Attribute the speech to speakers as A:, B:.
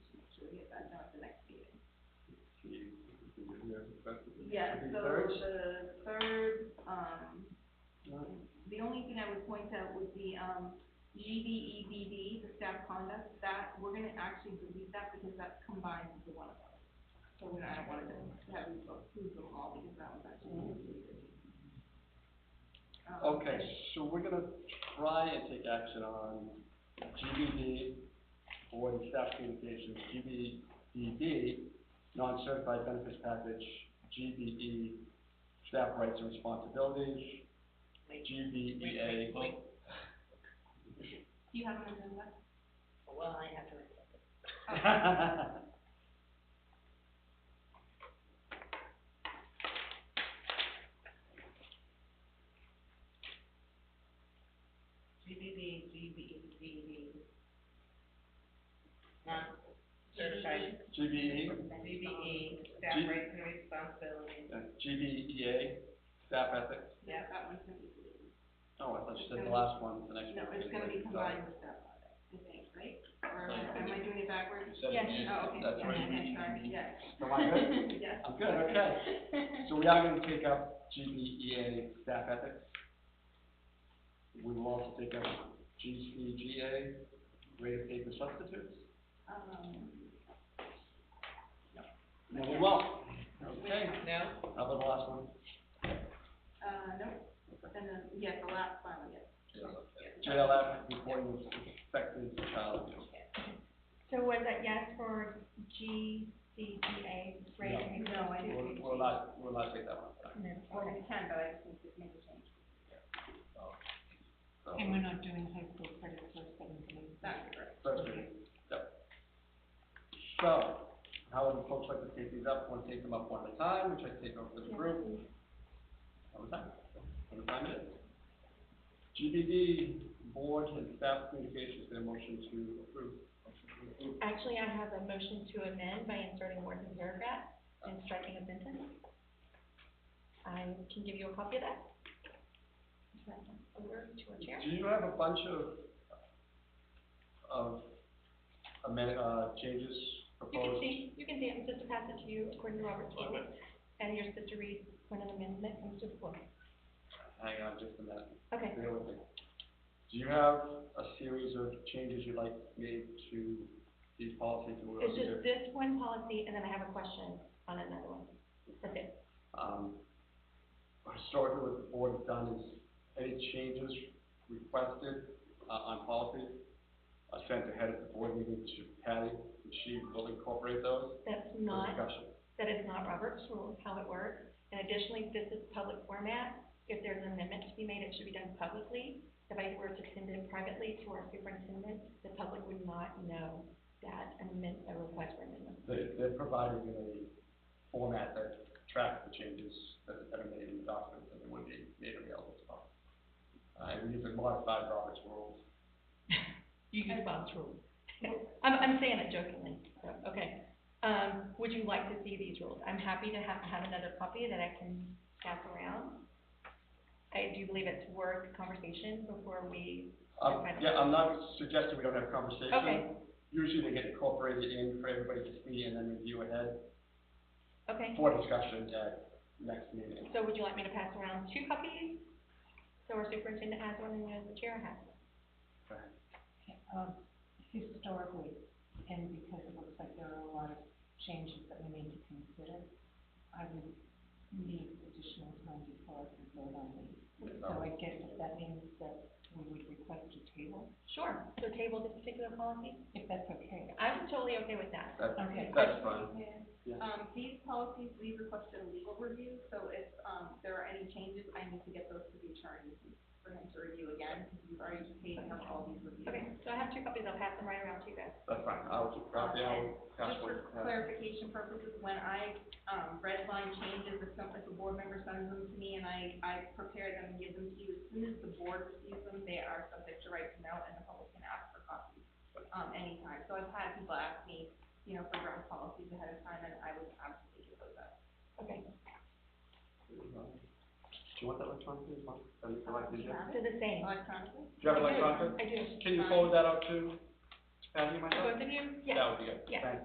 A: Yeah, so the third, um, the only thing I would point out would be, um, GDEBD, the staff conduct, that, we're gonna actually delete that because that's combined into one of them. So we, I don't wanna just have you approve them all because that was actually deleted. Um,
B: Okay, so we're gonna try and take action on GBD, board and staff communications, GBDD, non-certified benefits package, GBE, staff rights and responsibilities, E GBEA.
C: Wait,
A: Do you have an agenda?
C: Well, I have to, GBB, GBE, Not certified,
B: GBE,
C: GBE, staff
B: G-
C: rights and responsibilities,
B: uh, GBEA, staff ethics,
C: yeah.
A: That one's gonna be deleted.
B: oh, I thought you said the last one, the next
A: No,
B: one.
A: it's gonna be
B: Sorry.
A: combined with staff audit, I think, right? Or am I- am I doing it backwards?
B: Instead of Yes. you,
A: Oh, okay,
B: that's
A: yeah,
B: right.
A: yeah, sorry, yeah.
B: Am I good?
A: Yes.
B: I'm good, okay. So we are gonna take up GBEA staff ethics. We will also take up GCGA, rate of paper substitutes.
A: Um,
B: And we will, okay,
C: No?
B: how about the last one?
A: uh, nope, and then, yeah, the last one, yes.
B: JLF, reporting of suspected child abuse.
D: So was that yes for G, C, D, A, grade? and
A: No, I
D: grade
B: We'll,
D: two?
B: we'll not, we'll not take that one.
D: No,
A: Well,
D: okay.
A: we can, but I just need to make a change.
B: So,
E: And we're not doing high school credit for seventh grade.
A: That's correct.
B: first reading. Yep. So, how would folks like to take these up? Want to take them up one at a time, which I take over the group? One time, one time it is. GBD, board and staff communications, their motion to approve.
D: Actually, I have a motion to amend by inserting words in paragraph and striking a sentence. I can give you a copy of that. Turn it Over to a chair.
B: Do you have a bunch of, of amend, uh, changes
D: You can
B: proposed?
D: see, you can see, I'm just to pass it to you according to Robert's rules. And you're supposed to read when an amendment comes to the floor.
B: Hang on just a minute,
D: Okay,
B: bear with me. Do you have a series of changes you'd like made to these policies that we're
D: it's
B: looking
D: just this one policy and then I have a question on another one. That's it.
B: Um, historically, what the board has done is any changes requested, uh, on policy are sent ahead of the board meeting to Patty, and she will incorporate those
D: That's
B: for
D: not
B: discussion.
D: That is not Robert's rules, how it works. And additionally, this is public format. If there's an amendment to be made, it should be done publicly. If I were to send it privately to our superintendent, the public would not know that amendment, a request for amendment.
B: They, they're providing a format that tracks the changes that that are made in the documents and would be made available to us. Uh, and we've modified Robert's rules.
E: You use Bob's rules.
D: I'm, I'm saying it jokingly, so, okay. Um, would you like to see these rules? I'm happy to have, have another copy that I can pass around. I do believe it's worth conversation before we,
B: Um, yeah, I'm not suggesting we don't have a conversation.
D: Okay.
B: Usually they get incorporated in for everybody to see and then review ahead
D: okay?
B: for discussion at next meeting.
D: So would you like me to pass around two copies? So our superintendent has one and the chair has one.
E: Um, historically, and because it looks like there are a lot of changes that we need to consider, I would need additional time before I can vote on these. So I guess if that means that we would request a table,
D: Sure. So table this particular policy?
E: if that's okay.
D: I'm totally okay with that.
B: That's,
E: Okay.
B: that's fine. Yeah.
A: Um, these policies, we requested a legal review, so if, um, there are any changes, I need to get those to the attorney for him to review again, because we've already paid him all these reviews.
D: Okay, so I have two copies, I'll pass them right around to you guys.
B: That's fine. I'll keep copy. I'll pass
A: Just
B: one.
A: for clarification purposes, when I, um, redline changes, if some, if a board member sends them to me and I, I prepare them and give them to you, as soon as the board receives them, they are subject to right to know and the public can ask for copies, um, anytime. So I've had people ask me, you know, for draft policies ahead of time and I would absolutely give those up.
D: Okay.
B: Do you want that electronically as well? Or you can like, do you-
D: So the same.
A: Electronically?
B: Do you have
D: I do.
B: electronic?
D: I do.
B: Can you forward that out to Patty and myself?
D: Both of you? Yes.
B: That would be good.
D: Yes.
B: Thank you.